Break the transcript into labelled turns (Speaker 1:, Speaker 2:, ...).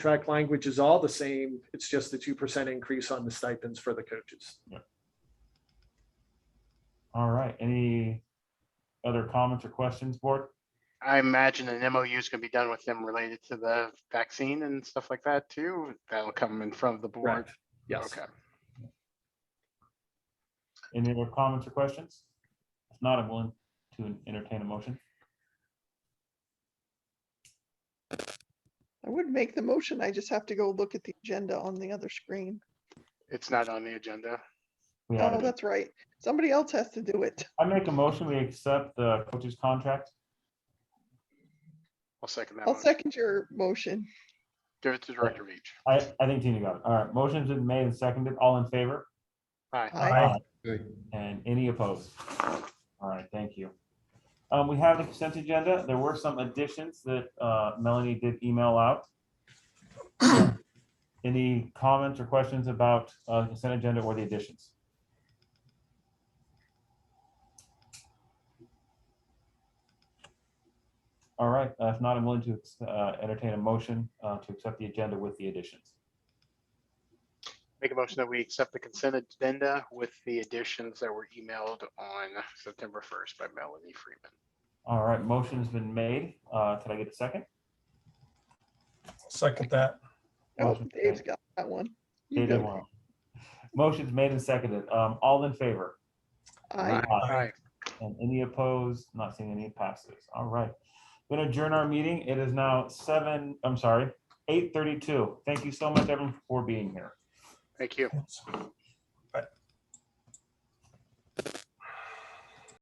Speaker 1: contract language is all the same. It's just the two percent increase on the stipends for the coaches.
Speaker 2: All right, any other comments or questions, board?
Speaker 3: I imagine an MOU is gonna be done with them related to the vaccine and stuff like that too. That'll come in front of the board.
Speaker 1: Correct. Yes.
Speaker 3: Okay.
Speaker 2: Any other comments or questions? If not, I'm willing to entertain a motion.
Speaker 4: I would make the motion. I just have to go look at the agenda on the other screen.
Speaker 3: It's not on the agenda.
Speaker 2: We
Speaker 4: Oh,
Speaker 2: have,
Speaker 4: that's right. Somebody else has to do it.
Speaker 2: I make a motion, we accept the coach's contract.
Speaker 3: I'll second that
Speaker 4: I'll
Speaker 3: one.
Speaker 4: second your motion.
Speaker 3: Give it to Director Beach.
Speaker 2: I, I think Tina got it. All right, motion's been made and seconded. All in favor?
Speaker 3: Hi,
Speaker 4: Aye.
Speaker 2: And any opposed? All right, thank you. Um, we have the consent agenda. There were some additions that, uh, Melanie did email out. Any comments or questions about, uh, consent agenda or the additions? All right, uh, if not, I'm willing to, uh, entertain a motion, uh, to accept the agenda with the additions.
Speaker 3: make a motion that we accept the consent agenda with the additions that were emailed on September first by Melanie Freeman.
Speaker 2: All right, motion's been made. Uh, can I get a second?
Speaker 5: Second that.
Speaker 4: Oh,
Speaker 2: Motion
Speaker 4: Dave's got that one. You
Speaker 2: David
Speaker 4: go.
Speaker 2: Wong. Motion's made and seconded. Um, all in favor?
Speaker 4: Aye.
Speaker 2: Aye.
Speaker 3: Hi,
Speaker 2: And any opposed? Not seeing any passes. All right. Going to adjourn our meeting. It is now seven, I'm sorry, eight thirty-two. Thank you so much, everyone, for being here.
Speaker 3: thank you.